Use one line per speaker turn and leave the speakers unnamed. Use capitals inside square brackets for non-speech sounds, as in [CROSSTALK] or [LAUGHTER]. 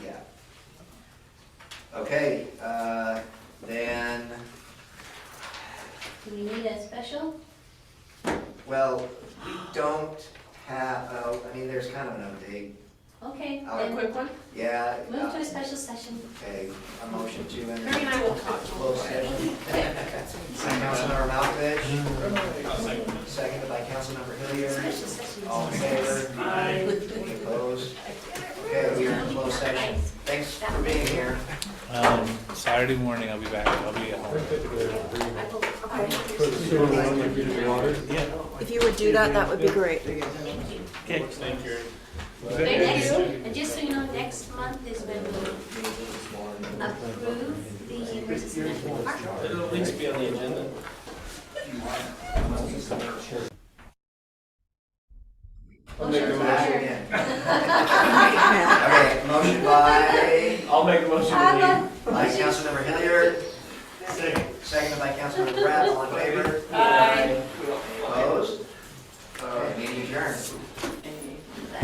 Okay, uh, then,
Do we need a special?
well, we don't have, oh, I mean, there's kind of an update.
Okay,
I'll-
then
Uh, quick one.
Yeah.
move to
uh,
a special session.
Okay, a motion to
Mary and
enter
I will talk.
closed session. Second, Councilmember Malkovich,
I'll second it.
seconded by Councilmember Hilliard.
Special session.
All in favor?
Aye.
Any opposed? Okay, we are in closed session. Thanks for being here.
Um, Saturday morning, I'll be back, I'll be at home.
If you would do that, that would be great.
Thank you.
Okay, thank you.
Thank you. And just so you know, next month is when we approve the University Management Park.
It'll at least be on the agenda.
I'll make the
Back again.
[LAUGHS]
Okay, motion by,
I'll make a motion to
by Councilmember Hilliard,
leave. Second.
seconded by Councilmember Pratt, all in favor?
Aye.